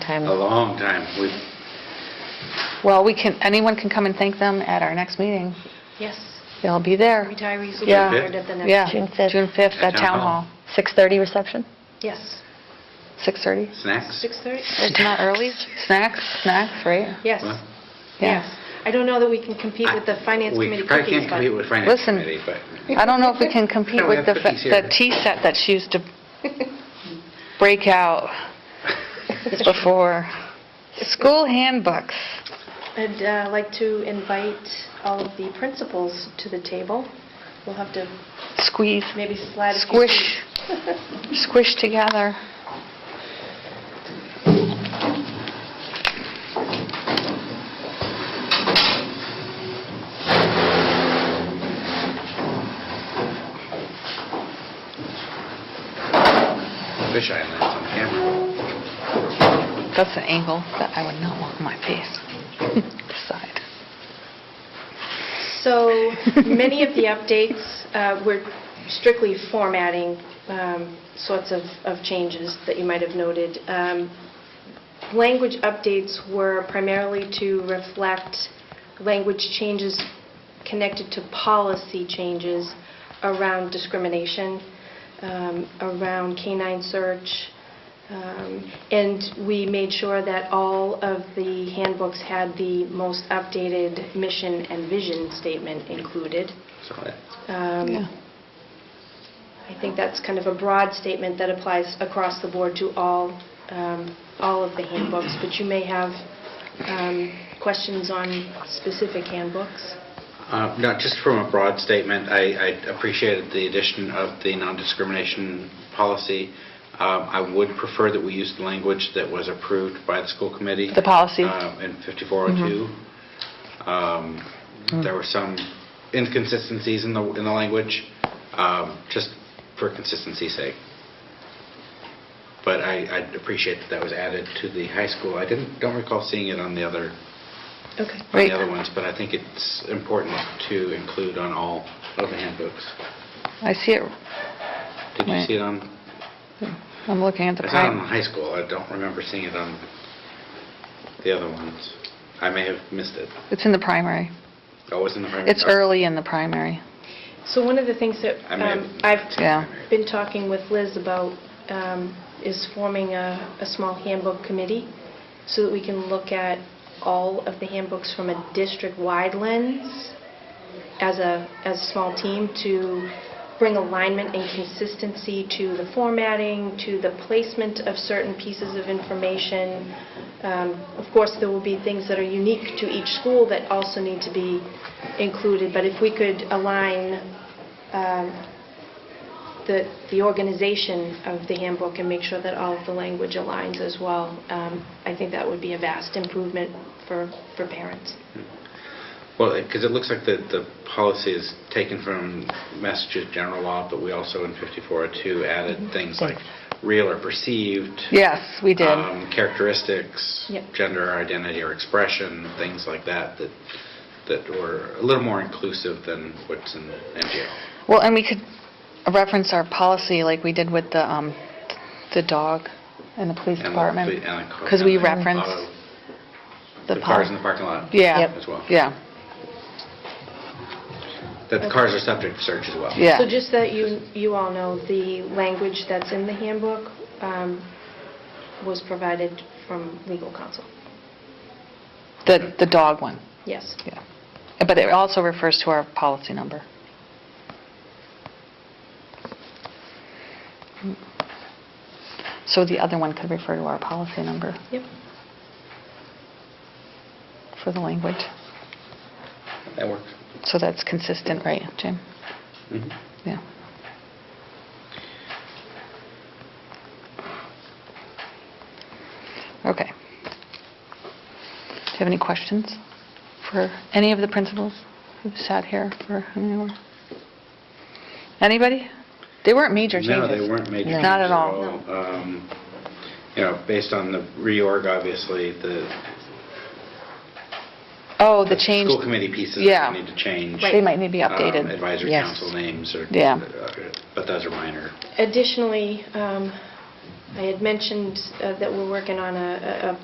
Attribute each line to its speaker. Speaker 1: time.
Speaker 2: a long time. We,
Speaker 1: Well, we can, anyone can come and thank them at our next meeting.
Speaker 3: Yes,
Speaker 1: They'll be there.
Speaker 3: retirees will be
Speaker 1: Yeah.
Speaker 3: honored at the next.
Speaker 1: Yeah,
Speaker 4: June fifth.
Speaker 1: June 5th at Town Hall,
Speaker 4: 6:30 reception?
Speaker 3: Yes,
Speaker 1: 6:30.
Speaker 2: snacks?
Speaker 3: 6:30?
Speaker 1: It's not early. Snacks, snacks, right?
Speaker 3: Yes,
Speaker 2: Well,
Speaker 3: yes. I don't know that we can compete with the Finance
Speaker 2: we
Speaker 3: Committee
Speaker 2: probably
Speaker 3: cookies,
Speaker 2: can't compete
Speaker 3: but
Speaker 2: with Finance
Speaker 1: Listen.
Speaker 2: Committee, but...
Speaker 1: I don't know if we can compete
Speaker 2: No, we
Speaker 1: with the
Speaker 2: have
Speaker 1: fa-
Speaker 2: cookies here.
Speaker 1: the tea set that she used to break out before. School handbooks.
Speaker 3: I'd uh, like to invite all of the principals to the table. We'll have to
Speaker 1: Squeeze,
Speaker 3: maybe slide a few seats.
Speaker 1: squish, squish together.
Speaker 2: Fish eye lands on camera.
Speaker 1: That's an angle that I would not want my face. Side.
Speaker 3: So many of the updates uh, were strictly formatting um, sorts of of changes that you might have noted. Um, Language updates were primarily to reflect language changes connected to policy changes around discrimination, um, around canine search, um, And we made sure that all of the handbooks had the most updated mission and vision statement included.
Speaker 2: So that-
Speaker 3: Um,
Speaker 1: Yeah.
Speaker 3: I think that's kind of a broad statement that applies across the board to all, um, all of the handbooks, but you may have um, questions on specific handbooks.
Speaker 2: Uh, No, just from a broad statement, I I appreciated the addition of the non-discrimination policy. Um, I would prefer that we use the language that was approved by the school committee.
Speaker 1: The policy. Mm-hmm.
Speaker 2: uh, In 5402. Um,
Speaker 1: Mm.
Speaker 2: There were some inconsistencies in the, in the language, um, just for consistency's sake. But I I appreciate that that was added to the high school. I didn't, don't recall seeing it on the other
Speaker 3: Okay.
Speaker 2: on
Speaker 1: Right.
Speaker 2: the other ones, but I think it's important to include on all of the handbooks.
Speaker 1: I see it,
Speaker 2: Did you
Speaker 1: Right.
Speaker 2: see it on,
Speaker 1: I'm looking at the
Speaker 2: it's not on
Speaker 1: prime.
Speaker 2: the high school, I don't remember seeing it on the other ones. I may have missed it.
Speaker 1: It's in the primary.
Speaker 2: Oh, it's in the primary?
Speaker 1: It's early in the primary.
Speaker 3: So one of the things that
Speaker 2: I may have-
Speaker 3: um, I've
Speaker 1: Yeah.
Speaker 3: been talking with Liz about um, is forming a, a small handbook committee so that we can look at all of the handbooks from a district-wide lens as a, as a small team to bring alignment and consistency to the formatting, to the placement of certain pieces of information. Um, Of course, there will be things that are unique to each school that also need to be included, but if we could align um, the the organization of the handbook and make sure that all of the language aligns as well, um, I think that would be a vast improvement for for parents.
Speaker 2: Well, because it looks like the, the policy is taken from Massachusetts general law, but we also in 5402
Speaker 1: Mm-hmm.
Speaker 2: added things like real or perceived.
Speaker 1: Yes, we did.
Speaker 2: um, characteristics,
Speaker 3: Yep.
Speaker 2: gender identity or expression, things like that, that that were a little more inclusive than what's in MGL.
Speaker 1: Well, and we could reference our policy like we did with the, um, the dog and the police
Speaker 2: And the-
Speaker 1: department.
Speaker 2: and the co-
Speaker 1: Because we
Speaker 2: and the
Speaker 1: reference
Speaker 2: auto-
Speaker 1: the
Speaker 2: The cars in
Speaker 1: policy.
Speaker 2: the parking lot.
Speaker 1: Yeah,
Speaker 2: Oh, As well.
Speaker 1: yeah,
Speaker 2: That the cars are subject to search as well.
Speaker 1: Yeah.
Speaker 3: So just that you, you all know, the language that's in the handbook um, was provided from legal counsel.
Speaker 1: the, the dog one,
Speaker 3: Yes.
Speaker 1: yeah. But it also refers to our policy number. So the other one could refer to our policy number
Speaker 3: Yep.
Speaker 1: for the language.
Speaker 2: That works.
Speaker 1: So that's consistent, right, Jim?
Speaker 2: Mhm.
Speaker 1: Yeah. Okay. Do you have any questions for any of the principals who've sat here for an hour? Anybody? They weren't major changes.
Speaker 2: No, they weren't major changes.
Speaker 1: Not at all.
Speaker 2: Um, You know, based on the reorg, obviously, the.
Speaker 1: Oh, the change.
Speaker 2: School committee pieces
Speaker 1: Yeah.
Speaker 2: that need to change.
Speaker 1: They might need to be
Speaker 2: um,
Speaker 1: updated.
Speaker 2: Advisory
Speaker 4: Yes.
Speaker 2: council names or. uh,
Speaker 1: Yeah.
Speaker 2: But those are minor.
Speaker 3: Additionally, um, I had mentioned uh, that we're working on a- a a